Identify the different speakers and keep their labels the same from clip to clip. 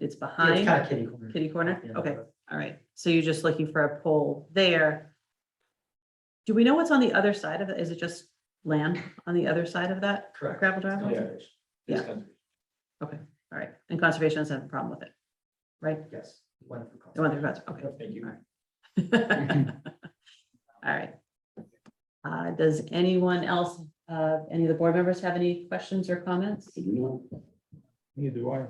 Speaker 1: it's
Speaker 2: It's
Speaker 1: behind
Speaker 2: kind of kitty corner.
Speaker 1: kitty corner?
Speaker 2: Yeah.
Speaker 1: Okay, all right. So you're just looking for a pole there. Do we know what's on the other side of it? Is it just land on the other side of that
Speaker 2: Correct.
Speaker 1: gravel
Speaker 2: It's
Speaker 1: driveway?
Speaker 2: conservation.
Speaker 1: Yeah.
Speaker 2: It's conservation.
Speaker 1: All right, and conservation doesn't have a problem with it.
Speaker 2: Yes. One for
Speaker 1: They want their fence, okay.
Speaker 2: conservation. Thank you.
Speaker 1: All right. Uh, does anyone else, uh, any of the board members have any questions or comments?
Speaker 3: Neither do I.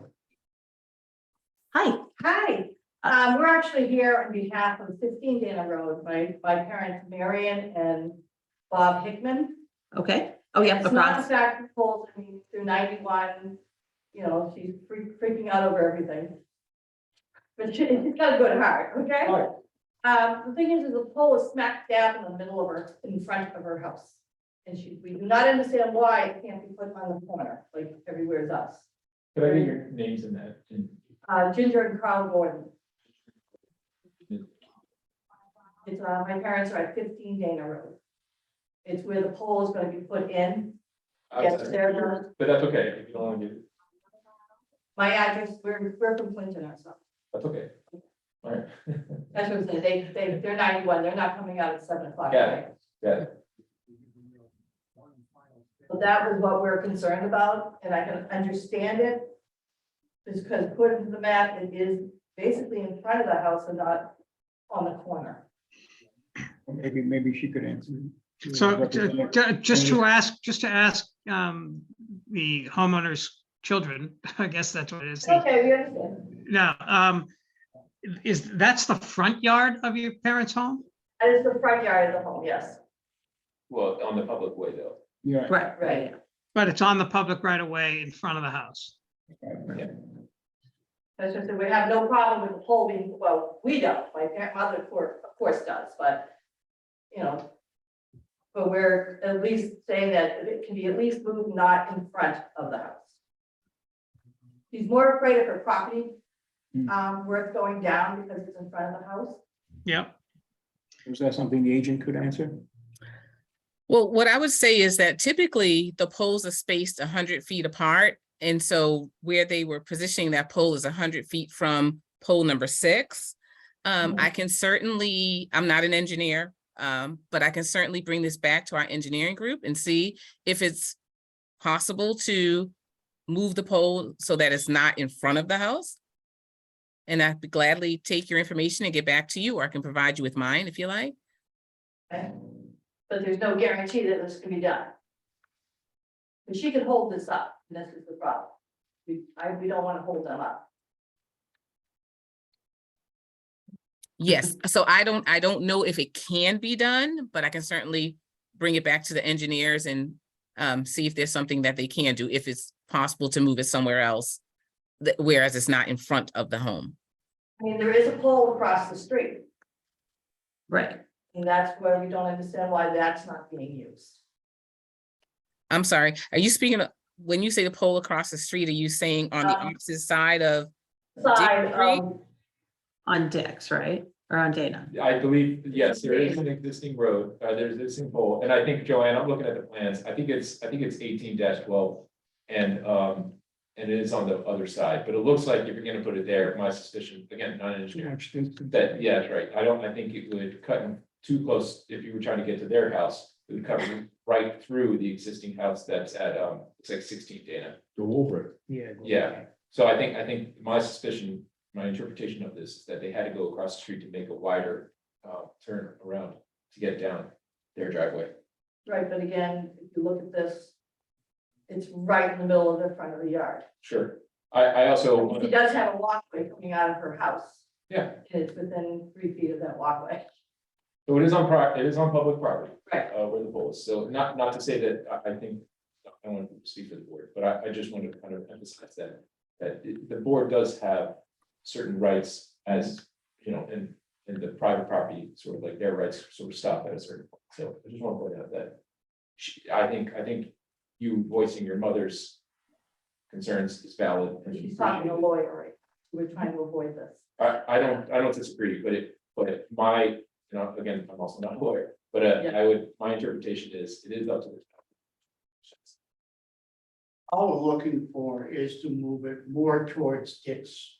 Speaker 1: Hi,
Speaker 4: Hi, um, we're actually here on behalf of fifteen Dana Road, my, my parents, Marion and Bob Hickman.
Speaker 1: okay. Oh, yeah, the
Speaker 4: It's not
Speaker 1: process.
Speaker 4: exactly full, I mean, through ninety-one, you know, she's freak- freaking out over everything. But she, she's got a good heart, okay?
Speaker 2: Alright.
Speaker 4: Um, the thing is, is the pole is smack dab in the middle of her, in front of her house. And she, we do not understand why it can't be put on the corner, like everywhere's us.
Speaker 2: Could I get your names in that? in-
Speaker 4: Uh, Ginger and Carl Gordon. It's, uh, my parents are at fifteen Dana Road. It's where the pole is gonna be put in. Yes,
Speaker 2: outside.
Speaker 4: there, there.
Speaker 2: But that's okay, if you don't want to get it,
Speaker 4: My address, we're, we're from Clinton ourselves.
Speaker 2: that's okay. All right,
Speaker 4: That's what I'm saying. They, they, they're ninety-one. They're not coming out at seven o'clock.
Speaker 2: Got
Speaker 4: right?
Speaker 2: got it.
Speaker 4: So that was what we're concerned about, and I can understand it. Just because according to the map, it is basically in front of the house and not on the corner.
Speaker 3: Maybe, maybe she could answer.
Speaker 5: So ju- ju- just to ask, just to ask um, the homeowner's children, I guess that's what it is.
Speaker 4: Okay, we understand.
Speaker 5: Now, um, is, that's the front yard of your parents' home?
Speaker 4: That is the front yard of the home, yes.
Speaker 2: Well, on the public way though.
Speaker 3: Yeah.
Speaker 1: Right, right.
Speaker 5: But it's on the public right of way in front of the house.
Speaker 4: That's just that we have no problem with the pole being, well, we don't, my parent, mother, of course, of course does, but, you know. But we're at least saying that it can be at least moved not in front of the house. She's more afraid of her property,
Speaker 3: Hmm.
Speaker 4: um, where it's going down because it's in front of the house.
Speaker 5: Yep.
Speaker 3: Was that something the agent could answer?
Speaker 6: Well, what I would say is that typically the poles are spaced hundred feet apart. And so where they were positioning that pole is hundred feet from pole number six. Um, I can certainly, I'm not an engineer, um, but I can certainly bring this back to our engineering group and see if it's possible to move the pole so that it's not in front of the house. And I'd gladly take your information and get back to you, or I can provide you with mine if you like.
Speaker 4: okay? But there's no guarantee that this can be done. But she could hold this up, and this is the problem. We, I, we don't want to hold them up.
Speaker 6: Yes, so I don't, I don't know if it can be done, but I can certainly bring it back to the engineers and um, see if there's something that they can do, if it's possible to move it somewhere else. that- whereas it's not in front of the home.
Speaker 4: I mean, there is a pole across the street.
Speaker 1: Right.
Speaker 4: And that's where we don't understand why that's not being used.
Speaker 6: I'm sorry, are you speaking, of- when you say the pole across the street, are you saying on the
Speaker 4: Um,
Speaker 6: opposite side of?
Speaker 4: Side um,
Speaker 6: Disagree?
Speaker 4: of,
Speaker 1: On Dix, right? Or on Dana?
Speaker 2: I believe, yes, there is an existing road, uh, there's an existing pole, and I think, Joanne, I'm looking at the plans, I think it's, I think it's eighteen twelve. And, um, and it is on the other side, but it looks like if you're gonna put it there, my suspicion, again, not an engineer, That, yeah, that's right. I don't, I think it would cut in too close, if you were trying to get to their house, it would cut right through the existing house that's at, um, it's like sixteen Dana.
Speaker 3: The Wolverine. Yeah.
Speaker 2: Yeah. So I think, I think my suspicion, my interpretation of this is that they had to go across the street to make a wider, uh, turn around to get down their driveway.
Speaker 4: right, but again, if you look at this, it's right in the middle of the front of the yard.
Speaker 2: Sure. I, I also,
Speaker 4: She does have a walkway coming out of her house.
Speaker 2: yeah,
Speaker 4: and It's within three feet of that walkway.
Speaker 2: so it is on pri, it is on public property.
Speaker 4: Right.
Speaker 2: Uh, where the pole is. So not, not to say that, I, I think, I don't want to speak for the board, but I, I just want to kind of emphasize that. That it- the board does have certain rights as, you know, in, in the private property, sort of like their rights sort of stop at a certain point. So I just want to point out that. She, I think, I think you voicing your mother's concerns is valid. and
Speaker 4: She's talking to a lawyer, right? We're trying to avoid this.
Speaker 2: I, I don't, I don't disagree, but it, but my, you know, again, I'm also not a lawyer, but uh,
Speaker 4: Yeah.
Speaker 2: I would, my interpretation is, it is up to the.
Speaker 7: All we're looking for is to move it more towards Dick's